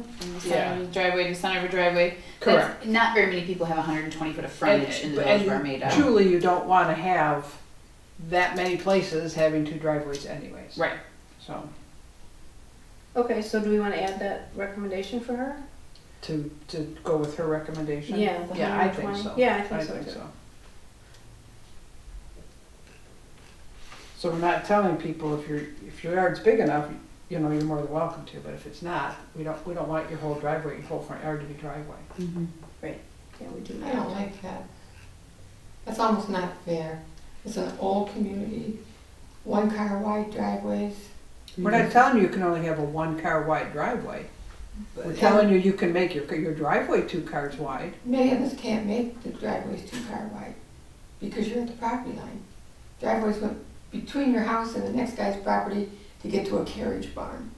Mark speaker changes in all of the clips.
Speaker 1: to center
Speaker 2: Yeah.
Speaker 1: of the driveway to center of a driveway. That's-
Speaker 2: Correct.
Speaker 1: Not very many people have hundred and twenty foot of frontage in the
Speaker 2: And-
Speaker 1: village of Armada.
Speaker 2: Truly, you don't want to have that many places having two driveways anyways.
Speaker 1: Right.
Speaker 2: So,
Speaker 3: Okay, so do we wanna add that recommendation for her?
Speaker 2: to, to go with her recommendation?
Speaker 3: Yeah, the
Speaker 2: Yeah, I think
Speaker 3: 120.
Speaker 2: so.
Speaker 3: Yeah, I think
Speaker 2: I
Speaker 3: so
Speaker 2: think
Speaker 3: too.
Speaker 2: so. So we're not telling people if your, if your yard's big enough, you know, you're more than welcome to, but if it's not, we don't, we don't want your whole driveway, your whole front yard to be driveway.
Speaker 1: Mhm.
Speaker 3: Yeah, we do
Speaker 4: I don't
Speaker 3: that.
Speaker 4: like that. That's almost not fair. It's an old community, one car wide driveways.
Speaker 2: We're not telling you you can only have a one-car wide driveway. We're telling you you can make your, your driveway two cars wide.
Speaker 4: Many of us can't make the driveways two car wide because you're at the property line. Driveways went between your house and the next guy's property to get to a carriage barn.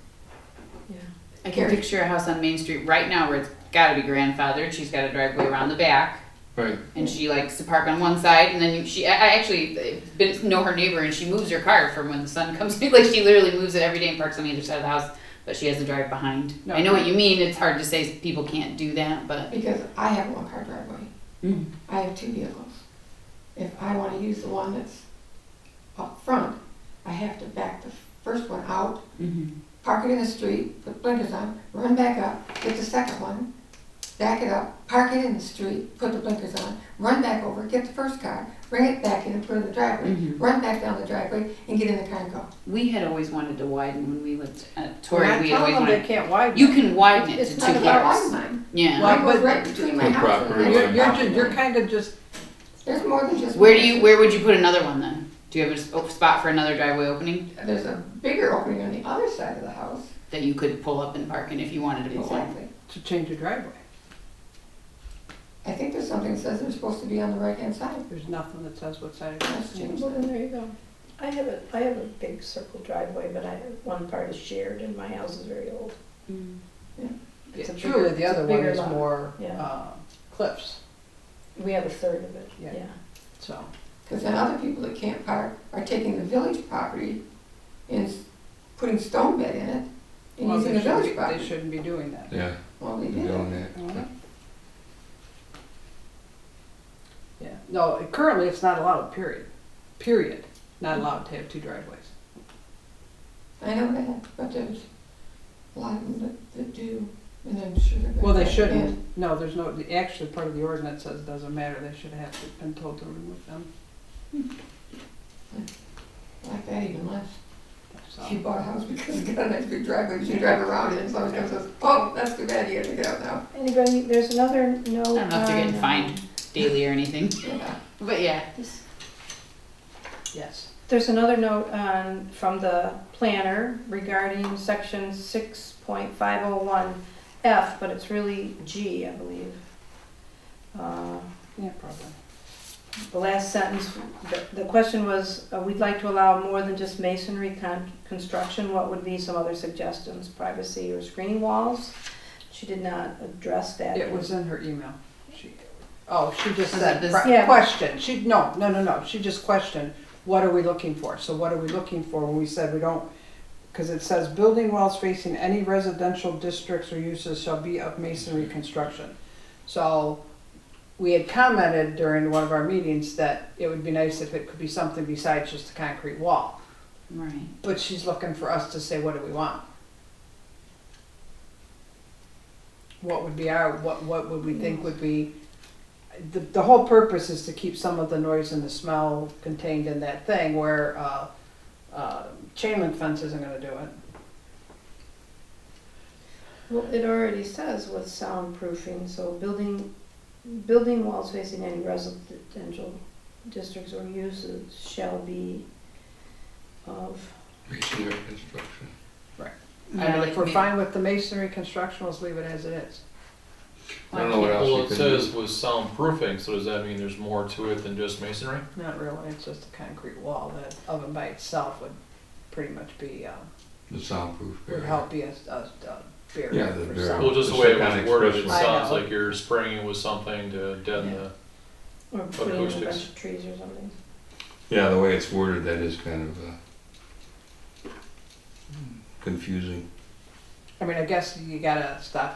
Speaker 1: I can picture a house on Main Street right now where it's gotta be grandfathered, she's got a driveway around the back.
Speaker 5: Right.
Speaker 1: And she likes to park on one side and then you- she, I, I actually uh, been, know her neighbor and she moves her car from when the sun comes in, like she literally moves it every day and parks on the other side of the house, but she has to drive behind. I know what you mean, it's hard to say people can't do that, but.
Speaker 4: Because I have one car driveway. I have two vehicles. If I wanna use the one that's up front, I have to back the first one out
Speaker 2: Mm-hmm.
Speaker 4: park it in the street, put blinkers on, run back up, get the second one, back it up, park it in the street, put the blinkers on, run back over, get the first car, bring it back in and put it in the driveway,
Speaker 1: Mhm.
Speaker 2: Mm-hmm.
Speaker 4: run back down the driveway and get in the car and go.
Speaker 1: We had always wanted to widen when we lived at
Speaker 3: We're
Speaker 1: Torrey,
Speaker 3: not
Speaker 1: we had
Speaker 3: telling
Speaker 1: always
Speaker 3: them they
Speaker 1: wanted,
Speaker 3: can't widen.
Speaker 1: you can widen it to
Speaker 3: It's
Speaker 1: two
Speaker 3: not
Speaker 4: Like about
Speaker 3: about
Speaker 1: cars.
Speaker 4: all mine.
Speaker 1: Yeah,
Speaker 2: Why
Speaker 4: Mine goes
Speaker 2: would-
Speaker 4: right between my
Speaker 5: The
Speaker 4: house and the
Speaker 2: You're,
Speaker 5: property
Speaker 4: next
Speaker 5: line.
Speaker 2: you're,
Speaker 4: property
Speaker 2: ju- you're
Speaker 4: line.
Speaker 2: kinda just,
Speaker 4: There's more than just.
Speaker 1: where do
Speaker 4: one.
Speaker 1: you, where would you put another one then? Do you have a s- op- spot for another driveway opening
Speaker 4: There's a bigger opening on the other side of the house.
Speaker 1: that you could pull up and park in if you wanted to put one?
Speaker 4: Exactly.
Speaker 2: to change your driveway.
Speaker 4: I think there's something that says they're supposed to be on the right hand side.
Speaker 2: There's nothing that says what side it is.
Speaker 4: Let's change
Speaker 3: Well, then
Speaker 4: that.
Speaker 3: there you go.
Speaker 6: I have a, I have a big circle driveway, but I, one part is shared and my house is very old. It's a
Speaker 2: Yeah, Truly,
Speaker 6: bigger-
Speaker 2: the
Speaker 6: it's a
Speaker 2: other one
Speaker 6: bigger
Speaker 2: is
Speaker 6: lot.
Speaker 2: more,
Speaker 6: Yeah.
Speaker 2: uh, cliffs,
Speaker 6: We have a third of it,
Speaker 2: Yeah.
Speaker 6: yeah.
Speaker 2: so.
Speaker 4: Because then other people that can't park are taking the village property and s- putting stone bed in it and
Speaker 2: well,
Speaker 4: using
Speaker 2: they shouldn't
Speaker 4: the village
Speaker 2: be- They
Speaker 4: property.
Speaker 2: shouldn't be doing that.
Speaker 5: Yeah,
Speaker 4: Well, they
Speaker 5: you're
Speaker 4: did
Speaker 5: doing
Speaker 4: it.
Speaker 5: that.
Speaker 2: Mhm. Yeah, no, it- currently it's not allowed, period, period, not allowed to have two driveways.
Speaker 4: I know that, but there's a lot of them that, that do, and I'm sure they're.
Speaker 2: Well, they
Speaker 4: gonna-
Speaker 2: shouldn't, no, there's no, the- actually, part of the ordinance says it doesn't matter, they should have to- been told to remove them,
Speaker 4: and Like that even less.
Speaker 2: so.
Speaker 4: She bought a house because it's got a nice big driveway, she drive around it, and someone comes and says, oh, that's too bad, you gotta get out now.
Speaker 6: Anybody, there's another note
Speaker 1: I don't know if they're getting
Speaker 6: on,
Speaker 1: fined
Speaker 6: um,
Speaker 1: daily or anything,
Speaker 4: Yeah.
Speaker 1: but yeah.
Speaker 6: this-
Speaker 2: Yes.
Speaker 6: There's another note on, from the planner regarding section six point five oh one F, but it's really G, I believe. Uh,
Speaker 2: Yeah, probably.
Speaker 6: The last sentence, the- the question was, uh, we'd like to allow more than just masonry con- construction, what would be some other suggestions? Privacy or screening walls? She did not address that.
Speaker 2: It was in her email. She, oh, she just
Speaker 1: Was
Speaker 2: said,
Speaker 1: it this-
Speaker 2: pri-
Speaker 6: Yeah.
Speaker 2: question, she, no, no, no, no, she just questioned, what are we looking for? So what are we looking for when we said we don't, because it says, building walls facing any residential districts or uses shall be of masonry construction. So, we had commented during one of our meetings that it would be nice if it could be something besides just a concrete wall.
Speaker 1: Right.
Speaker 2: But she's looking for us to say, what do we want? What would be our, what, what would we think would be, the, the whole purpose is to keep some of the noise and the smell contained in that thing where, uh, uh, chain link fence isn't gonna do it.
Speaker 6: Well, it already says with soundproofing, so building, building walls facing any residential districts or uses shall be of,
Speaker 5: Masonry construction.
Speaker 1: I
Speaker 2: And
Speaker 1: don't
Speaker 2: if we're
Speaker 1: think-
Speaker 2: fine with the masonry construction, let's leave it as it is.
Speaker 5: I don't know what else
Speaker 7: Well,
Speaker 5: you
Speaker 7: it
Speaker 5: can
Speaker 7: says
Speaker 5: do.
Speaker 7: with soundproofing, so does that mean there's more to it than just masonry?
Speaker 2: Not really, it's just a concrete wall, that oven by itself would pretty much be, uh,
Speaker 5: The soundproof
Speaker 2: would
Speaker 5: barrier.
Speaker 2: help be a, a a
Speaker 5: Yeah,
Speaker 2: barrier
Speaker 5: the
Speaker 2: for
Speaker 5: barrier.
Speaker 2: sound.
Speaker 7: Well, just the
Speaker 5: Just
Speaker 7: way it
Speaker 5: that kind
Speaker 7: was
Speaker 5: of
Speaker 7: worded, it
Speaker 5: expression.
Speaker 2: I
Speaker 7: sounds
Speaker 2: know.
Speaker 7: like you're spraying it with something to deaden
Speaker 2: Yeah.
Speaker 7: the,
Speaker 6: or putting in a bunch
Speaker 7: acoustics.
Speaker 6: of trees or something.
Speaker 5: Yeah, the way it's worded, that is kind of, uh, confusing.
Speaker 2: I mean, I guess you gotta stop